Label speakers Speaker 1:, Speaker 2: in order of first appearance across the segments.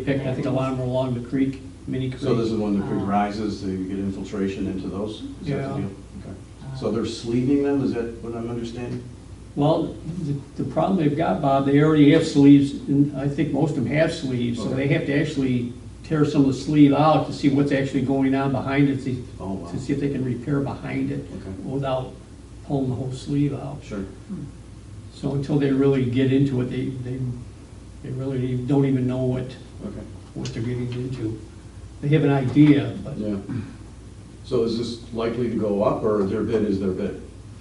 Speaker 1: pick, I think, a lot of them are along the creek, mini creek.
Speaker 2: So this is when the creek
Speaker 3: Ah.
Speaker 2: rises, they get infiltration into those? Is that
Speaker 1: Yeah.
Speaker 2: the deal? Okay. So they're sleeving them, is that what I'm understanding?
Speaker 1: Well, the, the problem they've got, Bob, they already have sleeves, and I think most of them have sleeves, so they
Speaker 2: Okay.
Speaker 1: have to actually tear some of the sleeve out to see what's actually going on behind it, to,
Speaker 2: Oh, wow.
Speaker 1: to see if they can repair behind it
Speaker 2: Okay.
Speaker 1: without pulling the whole sleeve out.
Speaker 2: Sure.
Speaker 1: So until they really get into it, they, they, they really don't even know what,
Speaker 2: Okay.
Speaker 1: what they're getting into. They have an idea, but
Speaker 2: Yeah. So is this likely to go up, or their bid is their bid?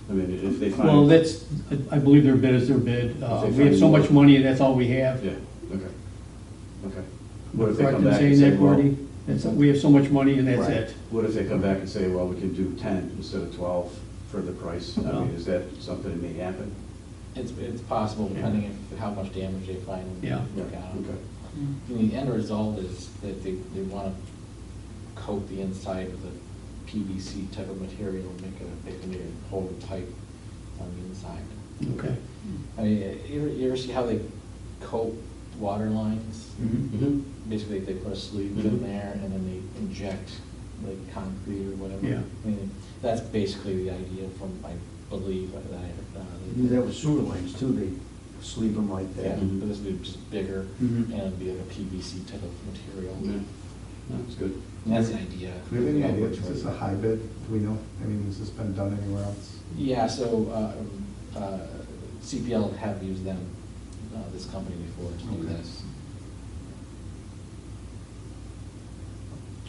Speaker 2: I mean, if they find.
Speaker 1: Well, that's, I believe their bid is their bid. Uh,
Speaker 2: If they
Speaker 1: We have so
Speaker 2: find-
Speaker 1: much money, that's all we have.
Speaker 2: Yeah, okay. Okay.
Speaker 1: Am I
Speaker 2: What if they
Speaker 1: correct
Speaker 2: come
Speaker 1: in
Speaker 2: back and
Speaker 1: saying
Speaker 2: say,
Speaker 1: that,
Speaker 2: well.
Speaker 1: Gordy? That's- We have so much money and that's
Speaker 2: Right.
Speaker 1: it.
Speaker 2: What if they come back and say, well, we can do ten instead of twelve for the price? I
Speaker 1: Well.
Speaker 2: mean, is that something that may happen?
Speaker 4: It's, it's possible depending on how much damage they find. and
Speaker 1: Yeah.
Speaker 4: look at 'em.
Speaker 2: Okay.
Speaker 4: And The end result is that they, they want to coat the inside with a PVC type of material, and make a, make a new whole pipe on the inside.
Speaker 1: Okay.
Speaker 4: I mean, you ever, you ever see how they coat water lines?
Speaker 1: Hmm.
Speaker 2: Mhm.
Speaker 4: Basically, they put a sleeve in
Speaker 1: Mm-hmm.
Speaker 2: Mhm.
Speaker 4: there and then they inject like concrete or whatever.
Speaker 1: Yeah.
Speaker 4: I mean, that's basically the idea from, I believe, that I. uh,
Speaker 5: Do that with sewer lines too, they sleeve them like
Speaker 4: Yeah,
Speaker 5: that.
Speaker 2: Mhm.
Speaker 4: but this would be just bigger
Speaker 5: Mhm.
Speaker 4: and it'd be like a PVC type of material.
Speaker 2: Yeah. That's good.
Speaker 4: That's the idea.
Speaker 6: Do we have any
Speaker 4: of
Speaker 6: idea,
Speaker 4: which
Speaker 6: is this a
Speaker 4: way.
Speaker 6: high bid? Do we know? I mean, has this been done anywhere else?
Speaker 4: Yeah, so um, uh, CPL have used them, uh, this company before to do
Speaker 6: Okay.
Speaker 4: this.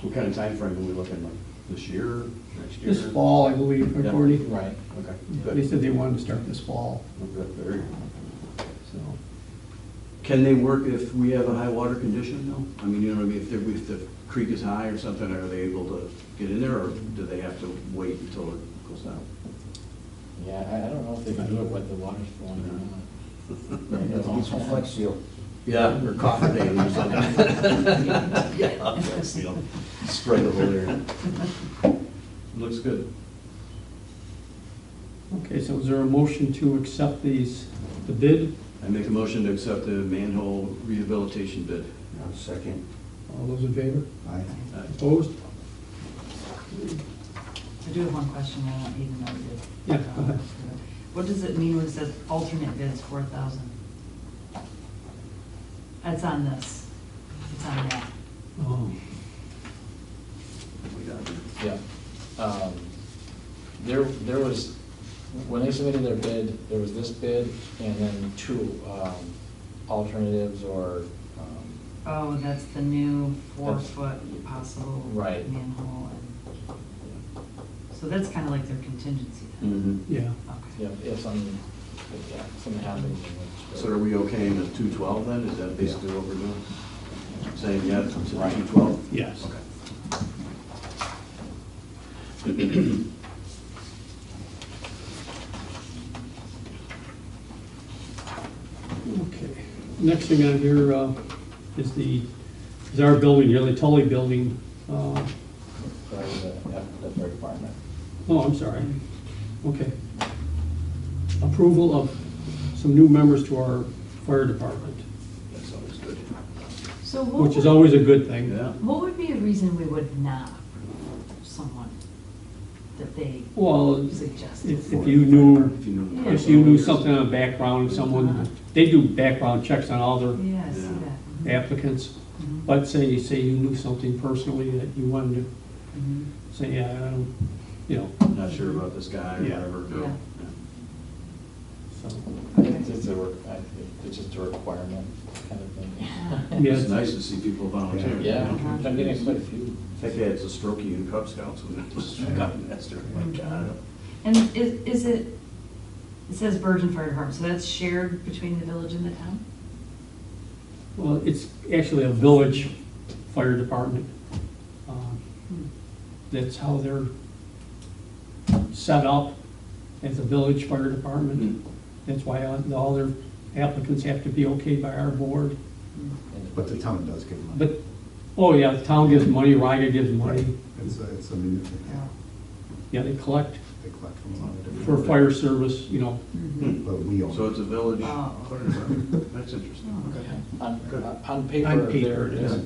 Speaker 2: What kind of timeframe are we looking like? This year, next year?
Speaker 1: This fall, I believe, or
Speaker 2: Yeah.
Speaker 1: Gordy?
Speaker 4: Right.
Speaker 2: Okay,
Speaker 1: They
Speaker 2: good.
Speaker 1: said they wanted to start this fall,
Speaker 2: Okay, very good.
Speaker 1: so.
Speaker 2: Can they work if we have a high water condition though? I mean, you know what I mean, if the, if the creek is high or something, are they able to get in there or do they have to wait until it goes down?
Speaker 4: Yeah, I, I don't know if they can do it with the water's flowing or not.
Speaker 5: You have to get some flex seal.
Speaker 2: Yeah, or coffer dam or something. Yeah, that's, you know, Spray the whole area. Looks good.
Speaker 1: Okay, so is there a motion to accept these, the bid?
Speaker 2: I make a motion to accept the manhole rehabilitation bid.
Speaker 5: Now, Second,
Speaker 1: All those in favor?
Speaker 6: I,
Speaker 2: Aye.
Speaker 1: Opposed?
Speaker 3: I do have one question, I don't even know you.
Speaker 1: Yeah, go ahead.
Speaker 3: What does it mean when it says alternate bids four thousand? It's on this, it's on that.
Speaker 1: Oh,
Speaker 2: We got it.
Speaker 4: Yeah. Um, There, there was, when they submitted their bid, there was this bid and then two um, alternatives or um,
Speaker 3: Oh, that's the new
Speaker 4: That's-
Speaker 3: four-foot possible
Speaker 4: Right.
Speaker 3: manhole. and- So that's kind of like their contingency then?
Speaker 2: Mhm.
Speaker 1: Yeah,
Speaker 4: Yeah,
Speaker 3: Okay.
Speaker 4: if something, if yeah, something happens.
Speaker 2: So are we okay in the two twelve then? Is that basically what we're doing? Saying yes to two twelve?
Speaker 1: yes.
Speaker 2: Okay.
Speaker 1: Okay, next thing on here uh, is the, is our building here, the Tully Building. uh,
Speaker 4: Sorry, the F- the fire department.
Speaker 1: Oh, I'm sorry. Okay. Approval of some new members to our fire department,
Speaker 2: That's always good.
Speaker 3: So what
Speaker 1: which is
Speaker 3: would,
Speaker 1: always a good thing.
Speaker 2: Yeah.
Speaker 3: what would be a reason we would not approve someone that they
Speaker 1: Well,
Speaker 3: suggested?
Speaker 1: if if you knew,
Speaker 2: If you know.
Speaker 3: Yeah.
Speaker 1: if you knew something on background, someone, they do background checks on all their
Speaker 3: Yeah, I see
Speaker 2: Yeah.
Speaker 3: that. Mhm.
Speaker 1: applicants.
Speaker 3: Mhm.
Speaker 1: But say, say you knew something personally that you wanted
Speaker 3: Mhm.
Speaker 1: to say, yeah, I don't, you know,
Speaker 2: Not sure about this guy or
Speaker 1: Yeah.
Speaker 2: whatever.
Speaker 3: Yeah.
Speaker 1: so.
Speaker 4: It's
Speaker 3: Okay.
Speaker 4: just a, re- I think it's just a requirement kind of thing.
Speaker 1: Yeah.
Speaker 2: It's nice to see people volunteer. you
Speaker 4: Yeah,
Speaker 2: know?
Speaker 4: I'm getting quite a few.
Speaker 2: Heck, yeah, it's a strokey in Cub Scouts when it was gotten master, my God.
Speaker 3: And is, is it, it says Virgin Fire Department, so that's shared between the village and the town?
Speaker 1: Well, it's actually a village fire department. Um,
Speaker 3: Hmm.
Speaker 1: That's how they're set up as a village fire department. That's why all all their applicants have to be okay by our board.
Speaker 6: but the town does give money.
Speaker 1: But, oh yeah, the town gives money, Ryder gives money.
Speaker 6: It's a, it's a municipal,
Speaker 1: Yeah,
Speaker 3: Yeah.
Speaker 1: they collect
Speaker 6: they collect from a lot of different.
Speaker 1: for fire service, you know,
Speaker 6: But we own.
Speaker 2: So it's a village
Speaker 3: Oh.
Speaker 2: fire department. That's interesting.
Speaker 4: On,
Speaker 2: Good.
Speaker 4: on paper,
Speaker 1: On paper,
Speaker 4: there it
Speaker 1: yeah.
Speaker 4: is.